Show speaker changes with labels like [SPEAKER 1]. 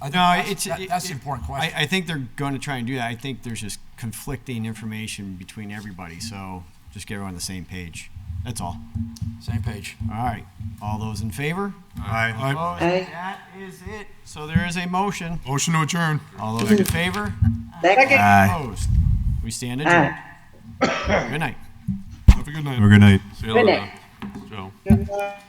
[SPEAKER 1] I think
[SPEAKER 2] No,
[SPEAKER 1] that's-
[SPEAKER 2] it's
[SPEAKER 1] that- That's an
[SPEAKER 2] it-
[SPEAKER 1] important
[SPEAKER 2] I,
[SPEAKER 1] question.
[SPEAKER 2] I think they're going to try and do that. I think there's just conflicting information between everybody, so just get everyone on the same page. That's all.
[SPEAKER 1] Same page.
[SPEAKER 2] All right. All those in favor?
[SPEAKER 3] Aye.
[SPEAKER 2] Opposed?
[SPEAKER 4] Aye.
[SPEAKER 2] That is it. So there is a motion.
[SPEAKER 3] Motion to adjourn.
[SPEAKER 2] All those in favor?
[SPEAKER 4] Second.
[SPEAKER 2] Opposed? We stand adjourned. Good night.
[SPEAKER 3] Have a good night.
[SPEAKER 5] Have a good night.
[SPEAKER 4] Good night.
[SPEAKER 6] Joe.
[SPEAKER 4] Good night.